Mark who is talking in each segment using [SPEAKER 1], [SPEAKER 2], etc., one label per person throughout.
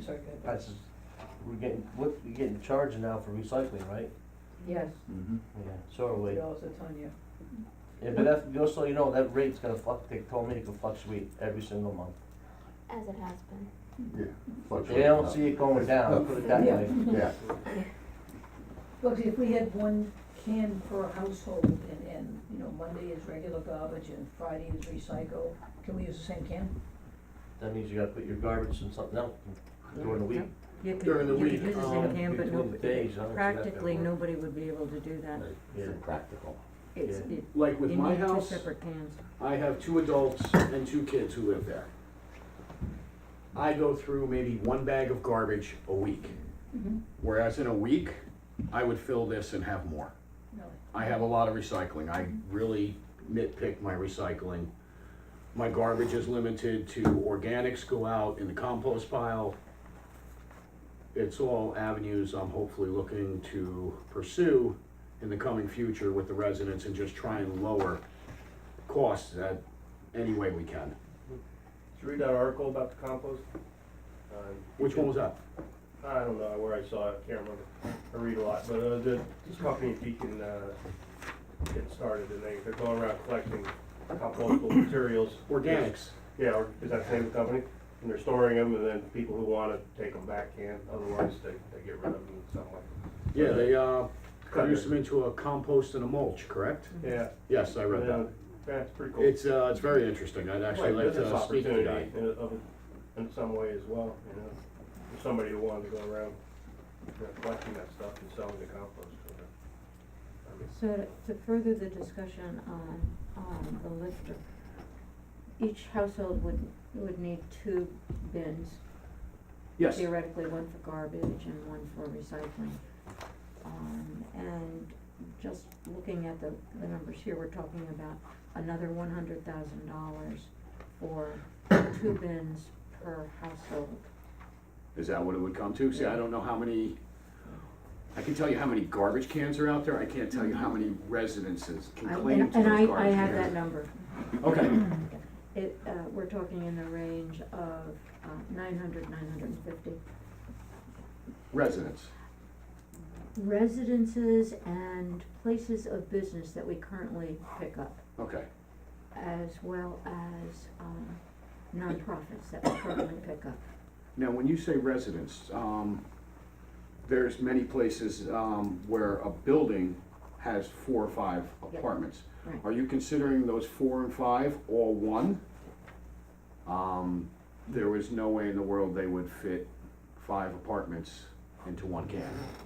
[SPEAKER 1] Second.
[SPEAKER 2] That's, we're getting, what, we're getting charged now for recycling, right?
[SPEAKER 1] Yes,
[SPEAKER 3] Mm-hmm.
[SPEAKER 2] Yeah. So are we.
[SPEAKER 1] it also on you.
[SPEAKER 2] Yeah, but that, just so you know, that rate's gonna fluct, they told me it could fluctuate every single month.
[SPEAKER 4] As it has been.
[SPEAKER 3] Yeah.
[SPEAKER 2] If they don't see it going down, put it that way.
[SPEAKER 3] Yeah,
[SPEAKER 1] Look, if we had one can per household and, and, you know, Monday is regular garbage and Friday is recycle, can we use the same can?
[SPEAKER 2] That means you gotta put your garbage and something else during the week.
[SPEAKER 5] You could,
[SPEAKER 6] During the
[SPEAKER 5] you could
[SPEAKER 6] week,
[SPEAKER 5] do the same
[SPEAKER 6] um,
[SPEAKER 5] can, but
[SPEAKER 2] between
[SPEAKER 5] no,
[SPEAKER 2] the days, I don't see that
[SPEAKER 5] practically
[SPEAKER 2] that work.
[SPEAKER 5] nobody would be able to do that.
[SPEAKER 2] Yeah.
[SPEAKER 3] practical.
[SPEAKER 5] It's,
[SPEAKER 2] Yeah.
[SPEAKER 5] it,
[SPEAKER 6] Like
[SPEAKER 5] you
[SPEAKER 6] with my
[SPEAKER 5] need two
[SPEAKER 6] house,
[SPEAKER 5] separate cans.
[SPEAKER 6] I have two adults and two kids who live there. I go through maybe one bag of garbage a week.
[SPEAKER 1] Mm-hmm.
[SPEAKER 6] Whereas in a week, I would fill this and have more.
[SPEAKER 1] Really?
[SPEAKER 6] I have a lot of recycling. I really nitpick my recycling. My garbage is limited to organics go out in the compost pile. It's all avenues I'm hopefully looking to pursue in the coming future with the residents and just try and lower costs that any way we can.
[SPEAKER 7] Did you read that article about the compost? Uh,
[SPEAKER 6] Which one was that?
[SPEAKER 7] I don't know where I saw it, can't remember. I read a lot, but uh, the, this company in Beacon, uh, getting started and they, they're going around collecting compostable materials.
[SPEAKER 6] Organics.
[SPEAKER 7] Yeah, or- is that the same company? And they're storing them and then people who want to take them back can, otherwise they, they get rid of them in some way.
[SPEAKER 6] Yeah, they, uh, produce them into a compost and a mulch, correct?
[SPEAKER 7] Yeah.
[SPEAKER 6] Yes, I read
[SPEAKER 7] Yeah,
[SPEAKER 6] that.
[SPEAKER 7] That's pretty cool.
[SPEAKER 6] It's, uh, it's very interesting. I'd actually
[SPEAKER 7] Right,
[SPEAKER 6] like
[SPEAKER 7] business
[SPEAKER 6] to speak to that.
[SPEAKER 7] opportunity In, of, in some way as well, you know, for somebody who wanted to go around you know, collecting that stuff and selling the compost. you know. I mean,
[SPEAKER 5] So to- to further the discussion on, on the lifter, each household would, would need two bins.
[SPEAKER 6] Yes.
[SPEAKER 5] Theoretically, one for garbage and one for recycling. Um, and just looking at the, the numbers here, we're talking about another one hundred thousand dollars for two bins per household.
[SPEAKER 6] Is that what it would come to? See, I don't know how many, I can tell you how many garbage cans are out there, I can't tell you how many residences can
[SPEAKER 5] I-
[SPEAKER 6] claim
[SPEAKER 5] And,
[SPEAKER 6] to those
[SPEAKER 5] and
[SPEAKER 6] garbage cans.
[SPEAKER 5] I, I have that number.
[SPEAKER 6] Okay,
[SPEAKER 5] It, uh, we're talking in the range of, uh, nine hundred, nine hundred and fifty.
[SPEAKER 6] residents,
[SPEAKER 5] Residences and places of business that we currently pick up,
[SPEAKER 6] okay,
[SPEAKER 5] as well as, um, nonprofits that we currently pick up.
[SPEAKER 6] now, when you say residents, um, there's many places, um, where a building has four or five
[SPEAKER 5] Yeah.
[SPEAKER 6] apartments.
[SPEAKER 5] Right.
[SPEAKER 6] Are you considering those four and five all one? Um, there was no way in the world they would fit five apartments into one can.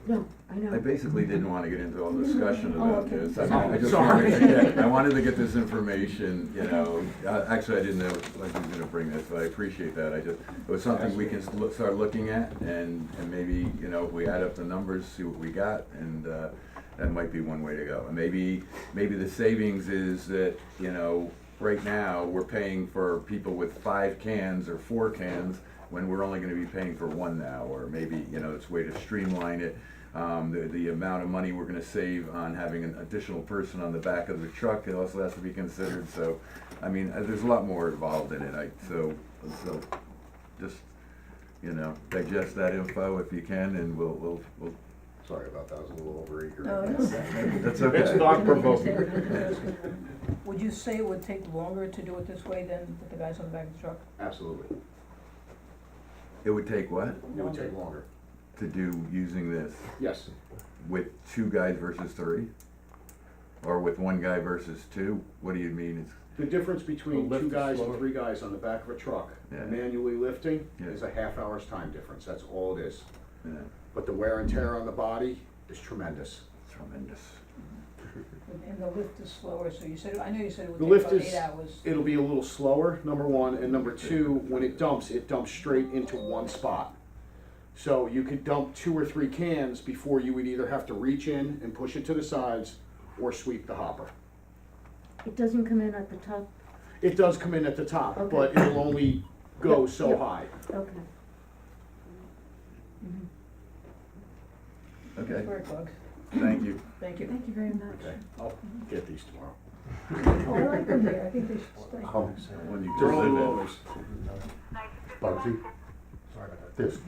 [SPEAKER 5] No, I know.
[SPEAKER 8] I basically didn't want to get into all the discussion
[SPEAKER 5] Oh,
[SPEAKER 8] about
[SPEAKER 5] okay.
[SPEAKER 8] this. I mean, I just
[SPEAKER 6] Sorry.
[SPEAKER 8] wanted to get, I wanted to get this information, you know, Uh, actually, I didn't know, like, was gonna bring this, but I appreciate that, I just, it was something we can s- look- start looking at, and, and maybe, you know, if we add up the numbers, see what we got, and, uh, that might be one way to go. And maybe, maybe the savings is that, you know, right now, we're paying for people with five cans or four cans, when we're only gonna be paying for one now, or maybe, you know, it's a way to streamline it. Um, the, the amount of money we're gonna save on having an additional person on the back of the truck, it also has to be considered, so, I mean, uh, there's a lot more involved in it, I, so, so, just, you know, digest that info if you can, and we'll, we'll, we'll,
[SPEAKER 3] Sorry about that, I was a little overeager.
[SPEAKER 1] No, it's-
[SPEAKER 8] that's okay.
[SPEAKER 6] It's not provoking.
[SPEAKER 1] Would you say it would take longer to do it this way than with the guys on the back of the truck?
[SPEAKER 6] Absolutely.
[SPEAKER 8] It would take what,
[SPEAKER 6] It would take longer.
[SPEAKER 8] to do using this,
[SPEAKER 6] Yes.
[SPEAKER 8] with two guys versus three? Or with one guy versus two, what do you mean, it's,
[SPEAKER 6] The difference
[SPEAKER 2] The
[SPEAKER 6] between
[SPEAKER 2] lift
[SPEAKER 6] two
[SPEAKER 2] is
[SPEAKER 6] guys and
[SPEAKER 2] slower.
[SPEAKER 6] three guys on the back of a truck
[SPEAKER 8] Yeah.
[SPEAKER 6] manually lifting
[SPEAKER 8] Yeah.
[SPEAKER 6] is a half hour's time difference. That's all it is.
[SPEAKER 8] you know,
[SPEAKER 6] But the wear and tear on the body is tremendous.
[SPEAKER 8] tremendous.
[SPEAKER 1] And the lift is slower, so you said, I know you said it
[SPEAKER 6] The
[SPEAKER 1] would take
[SPEAKER 6] lift
[SPEAKER 1] about eight
[SPEAKER 6] is,
[SPEAKER 1] hours.
[SPEAKER 6] it'll be a little slower, number one. And number two, when it dumps, it dumps straight into one spot. So you could dump two or three cans before you would either have to reach in and push it to the sides or sweep the hopper.
[SPEAKER 5] It doesn't come in at the top,
[SPEAKER 6] It does come in at the top,
[SPEAKER 5] Okay.
[SPEAKER 6] but it'll only go so
[SPEAKER 5] Yep.
[SPEAKER 6] high.
[SPEAKER 5] okay.
[SPEAKER 8] Okay,
[SPEAKER 1] Very good.
[SPEAKER 8] thank you.
[SPEAKER 1] Thank you.
[SPEAKER 5] Thank you very much.
[SPEAKER 6] Okay, I'll get these tomorrow.
[SPEAKER 1] Oh, I like them there, I think they should stay.
[SPEAKER 3] Um,
[SPEAKER 8] When you
[SPEAKER 6] Oh. They're all
[SPEAKER 8] live it.
[SPEAKER 6] lowers.
[SPEAKER 3] Bugsy,
[SPEAKER 7] Sorry about that.
[SPEAKER 3] there's